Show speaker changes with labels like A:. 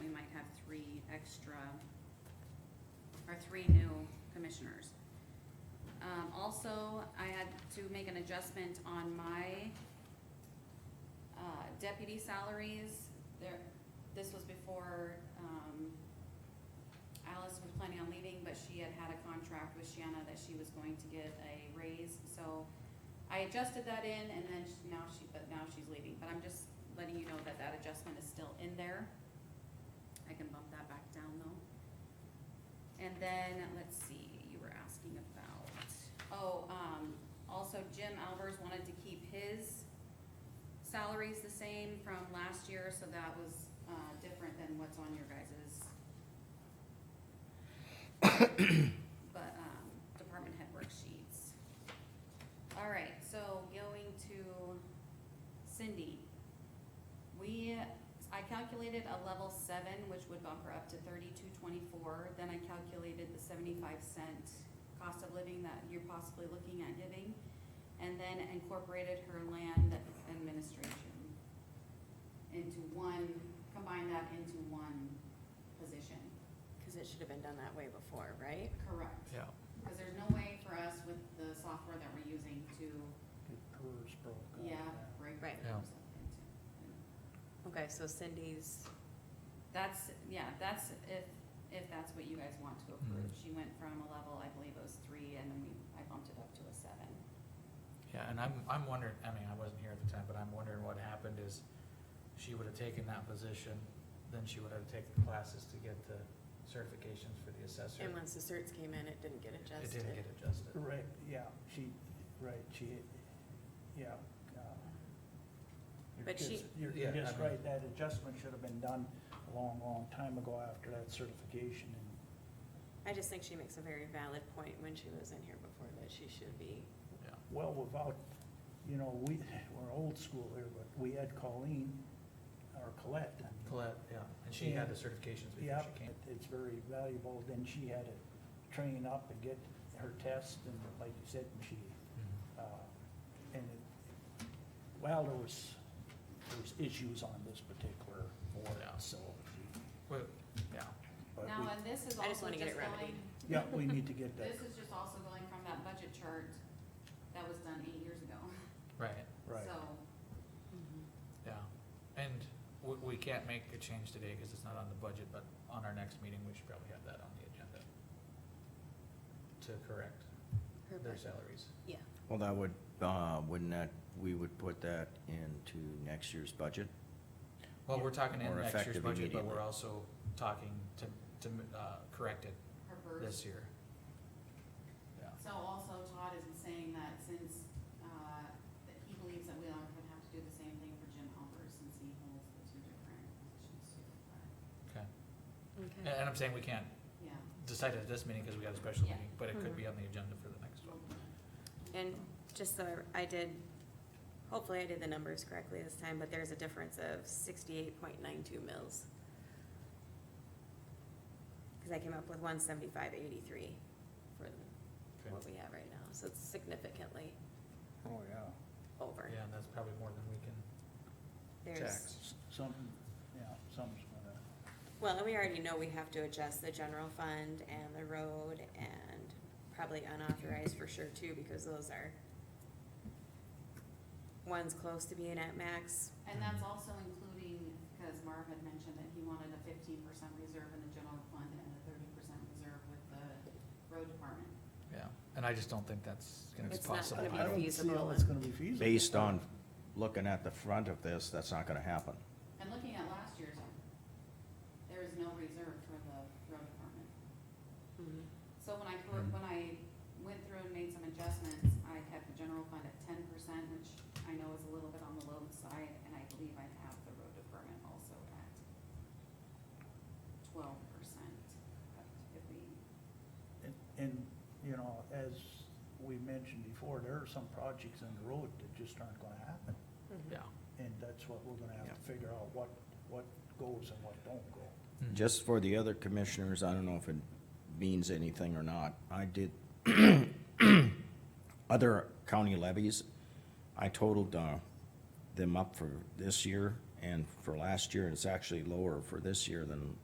A: extra, or three new commissioners. Um, also, I had to make an adjustment on my, uh, deputy salaries. There, this was before, um, Alice was planning on leaving, but she had had a contract with Shanna that she was going to get a raise, so I adjusted that in and then she- now she, but now she's leaving, but I'm just letting you know that that adjustment is still in there. I can bump that back down though. And then, let's see, you were asking about, oh, um, also Jim Albers wanted to keep his salaries the same from last year, so that was, uh, different than what's on your guys's. But, um, department head worksheets. All right, so going to Cindy. We, I calculated a level seven, which would bump her up to thirty-two twenty-four, then I calculated the seventy-five cent cost of living that you're possibly looking at giving, and then incorporated her land administration into one, combine that into one position.
B: Because it should have been done that way before, right?
A: Correct.
C: Yeah.
A: Cause there's no way for us with the software that we're using to,
D: Get PERS broke out.
A: yeah, break
B: Right.
C: Yeah.
A: those up into.
B: Okay, so Cindy's,
A: That's, yeah, that's if, if that's what you guys want to approve. She went from a level, I believe it was three, and then we, I bumped it up to a seven.
C: Yeah, and I'm, I'm wondering, I mean, I wasn't here at the time, but I'm wondering what happened is she would have taken that position, then she would have taken classes to get the certifications for the assessor.
B: and once the certs came in, it didn't get
C: It
B: adjusted.
C: didn't get adjusted.
D: Right, yeah, she, right, she, yeah. uh, you're
B: But she-
D: just- You're
C: Yeah,
D: you're just
C: I mean-
D: right, that adjustment should have been done a long, long time ago after that certification and
B: I just think she makes a very valid point when she was in here before that she should be,
C: Yeah.
D: well, without, you know, we, we're old school here, but we had Colleen or Colette. I mean,
C: Colette, yeah, and she had the certifications before
D: Yeah,
C: she came.
D: it- it's very valuable, then she had to train up and get her test, and like you said, and she, uh, and it, well, there was, there was issues on this particular board,
C: Yeah.
D: so.
C: Well, yeah,
D: but
A: Now,
D: we-
A: and this is
B: I just
A: also
B: wanna get
A: just
B: it remedied.
A: going,
D: Yeah, we need to get that,
A: this is just also going from that budget chart that was done eight years ago.
C: right,
D: right,
A: So,
B: Mm-hmm.
C: yeah. And we, we can't make a change today because it's not on the budget, but on our next meeting, we should probably have that on the agenda to correct
B: her,
C: their
B: bu-
C: salaries.
B: yeah,
E: Well, that would, uh, wouldn't that, we would put that into next year's budget?
C: Well, we're talking in
E: Or
C: next year's
E: effective
C: budget, but we're
E: immediately.
C: also talking to, to, uh, correct it
A: her birth.
C: this year. Yeah,
A: So also Todd is saying that since, uh, that he believes that we are gonna have to do the same thing for Jim Halpert since he holds the two different positions too. But,
C: okay. And,
B: okay.
C: and I'm saying we can't
A: Yeah.
C: decide it at this meeting because we got a special
A: Yeah.
C: meeting, but it could
B: Mhm.
C: be on the agenda for the next one.
B: And just so I did, hopefully I did the numbers correctly this time, but there's a difference of sixty-eight point nine two mils. Because I came up with one seventy-five eighty-three for what we have right now, so it's significantly
D: oh, yeah,
B: over.
C: Yeah, and that's probably more than we can,
B: There's,
E: Tax.
D: S- something, yeah, something's gonna,
B: Well, and we already know we have to adjust the general fund and the road and probably unauthorized for sure too, because those are one's close to being at max,
A: And that's also including, because Marv had mentioned that he wanted a fifteen percent reserve in the general fund and a thirty percent reserve with the road department.
C: yeah, and I just don't think that's gonna be
B: It's not
C: possible.
B: gonna be
D: I don't see
B: feasible
D: how it's
B: and-
D: gonna be feasible.
E: Based on looking at the front of this, that's not gonna happen.
A: And looking at last year's, there is no reserve for the road department. So when I, cor- when I went through and made some adjustments, I kept the general fund at ten percent, which I know is a little bit on the low side, and I believe I have the road department also at twelve percent. If we
D: And- And, you know, as we mentioned before, there are some projects on the road that just aren't gonna happen.
B: Mm-hmm.
A: Mm-hmm.
C: Yeah.
D: And that's what we're gonna have
E: Yeah.
D: to figure out, what, what goes and what don't go.
C: Mhm.
E: Just for the other commissioners, I don't know if it means anything or not. I did, other county levies, I totaled, uh, them up for this year and for last year, and it's actually lower for this year than